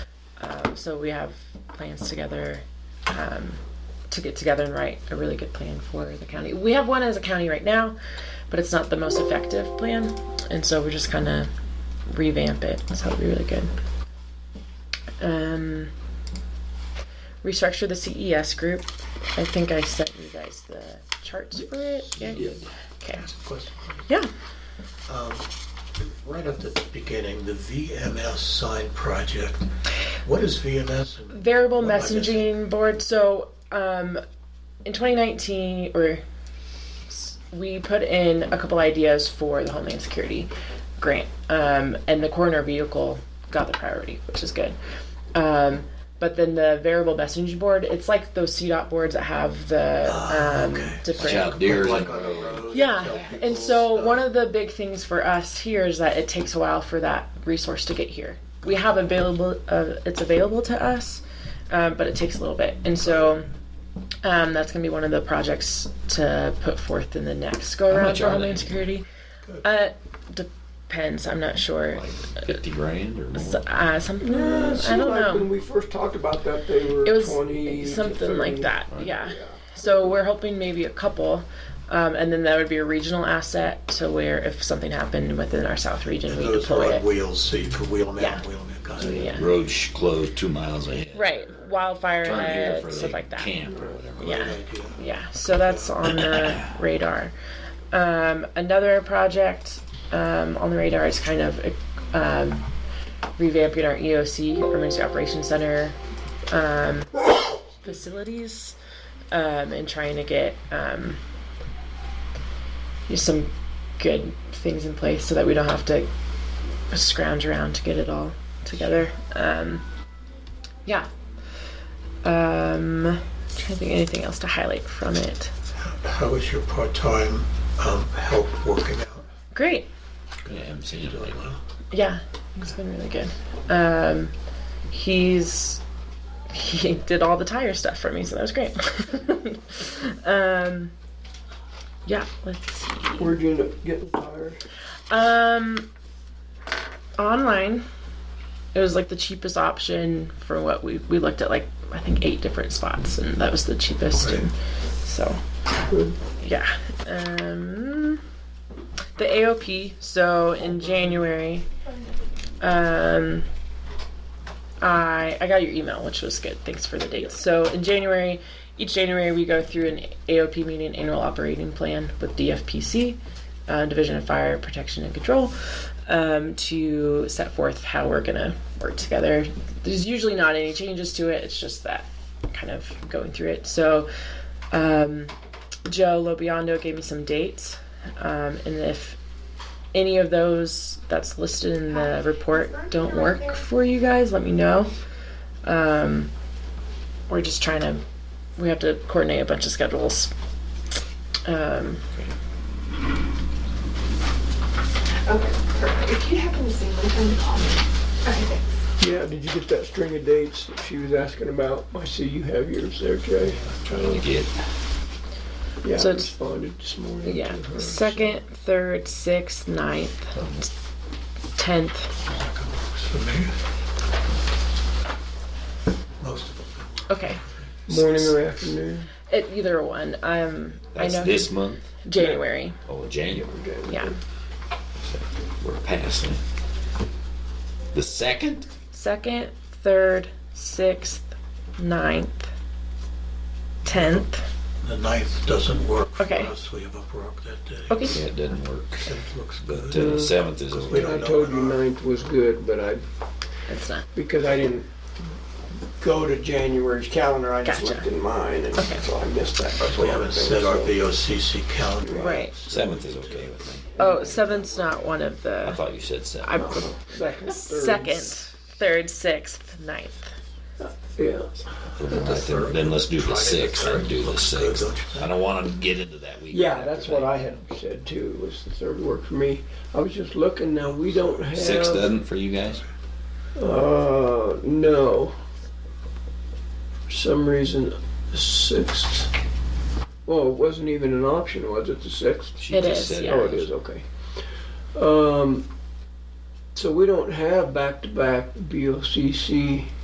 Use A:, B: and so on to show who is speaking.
A: Um, so we have plans together um, to get together and write a really good plan for the county. We have one as a county right now, but it's not the most effective plan, and so we're just kind of revamp it. So it'll be really good. Um, restructure the CES group. I think I sent you guys the charts for it. Yeah.
B: Yeah.
A: Okay.
C: Ask a question.
A: Yeah.
C: Um, Right at the beginning, the VMS sign project. What is VMS? and-
A: variable
C: Oh, I guess.
A: messaging board. So, um, in 2019, or s- we put in a couple ideas for the Homeland Security grant, um, and the coroner vehicle got the priority, which is good. Um, but then the variable messaging board, it's like those CDOT boards that have the
C: Ah,
A: um,
C: okay.
A: different.
B: Yeah, deers
C: Like
B: and-
C: on a road, tell
A: Yeah,
C: people
A: and so
C: stuff.
A: one of the big things for us here is that it takes a while for that resource to get here. We have available, uh, it's available to us, um, but it takes a little bit, and so um, that's going to be one of the projects to put forth in the next go around
B: much
A: for
B: are
A: Homeland
B: they?
A: Security. Uh, depends. I'm not sure.
B: Like fifty grand or
A: So,
B: more.
A: uh, something
D: Yeah, it
A: I
D: seemed
A: don't
D: like
A: know.
D: When we first talked about that, they were
A: it was
D: 20 to
A: something like
D: 30.
A: that yeah.
D: Yeah.
A: so we're hoping maybe a couple um, and then that would be a regional asset to where if something happened within our south region we
C: Those
A: deploy
C: are on
A: it
C: wheels, so you put wheel mount,
A: Yeah.
C: wheel mount. kind of-
A: yeah
B: Roads sh- closed two miles ahead.
A: right wildfire
B: Turn here for
A: ahead,
B: the
A: stuff like that
B: camp or whatever.
A: Yeah.
C: Great idea.
A: yeah so that's on the radar um, another project um, on the radar is kind of um, revamping our eoc emergency operations center um, facilities um, and trying to get um, just some good things in place so that we don't have to scrounge around to get it all together um, yeah um, trying to think of anything else to highlight from it.
C: How is your part-time um, help working out?
A: Great.
B: Yeah, I haven't seen it lately.
A: Yeah, he's been really good. Um, he's he did all the tire stuff for me, so that was great. um, yeah, let's see.
D: Where'd you end up getting tires?
A: Um, online, it was like the cheapest option for what we we looked at like I think eight different spots, and that was the cheapest. And so,
D: Good.
A: yeah. Um, the AOP. So in January, um, I I got your email, which was good. Thanks for the dates. So in January. Each January, we go through an AOP meeting, annual operating plan with DFPC uh, Division of Fire Protection and Control um, to set forth how we're going to work together. There's usually not any changes to it, it's just that kind of going through it. So, um, Joe Lobiondo gave me some dates, um, and if any of those that's listed in the report don't work for you guys, let me know. Um, we're just trying to, we have to coordinate a bunch of schedules. Um,
E: Okay, perfect. If you happen to see one, tell me to call me. Okay, thanks.
D: Yeah, did you get that string of dates that she was asking about? I see you have yours there, Jay.
B: Trying to get
D: Yeah,
A: So
D: I
A: it's-
D: responded this morning.
A: Yeah.
B: Mm-hmm.
D: to her.
A: Second, third, sixth, ninth, tenth.
C: Works for me. Most of them.
A: Okay.
D: Morning or afternoon?
A: It, either one. Um, I
B: that's
A: know
B: this Mm-hmm. month.
A: January.
B: Oh, January.
D: Okay.
A: Yeah.
B: We're passing. The second?
A: Second, third, sixth, ninth, tenth.
C: The ninth doesn't work for
A: Okay.
C: us, we have a work that day.
A: Okay.
B: Yeah, it doesn't work.
C: Seventh looks
B: But
C: good.
B: uh, the seventh is
C: We
B: okay.
D: I
C: don't know
D: told
C: when
D: you
C: our-
D: ninth was good, but I,
A: It's not.
D: because I didn't go to January's calendar, I just
A: Gotcha.
D: looked in mine, and
A: Okay.
D: so I missed that. That's
C: We haven't set our VOCC calendar.
A: Right.
B: Seventh is okay with me.
A: Oh, seventh's not one of
B: I
A: the.
B: thought you said seventh.
A: I'm
D: Second, third.
A: second, third, sixth, ninth.
D: Yeah.
B: Then, I think- then let's do the sixth. I'd do the
C: Good,
B: sixth.
C: don't you
B: I
C: think?
B: don't want to get into that week.
D: Yeah, that's what I had said too, was the third work for me. I was just looking, now we don't have.
B: Six doesn't for you guys?
D: Uh, no. For some reason, the sixth. Well, it wasn't even an option, was it, the sixth?
B: She
A: It
B: just
A: is,
B: said
A: yeah.
D: Oh, it is, okay. Um, so we don't have back-to-back BOCC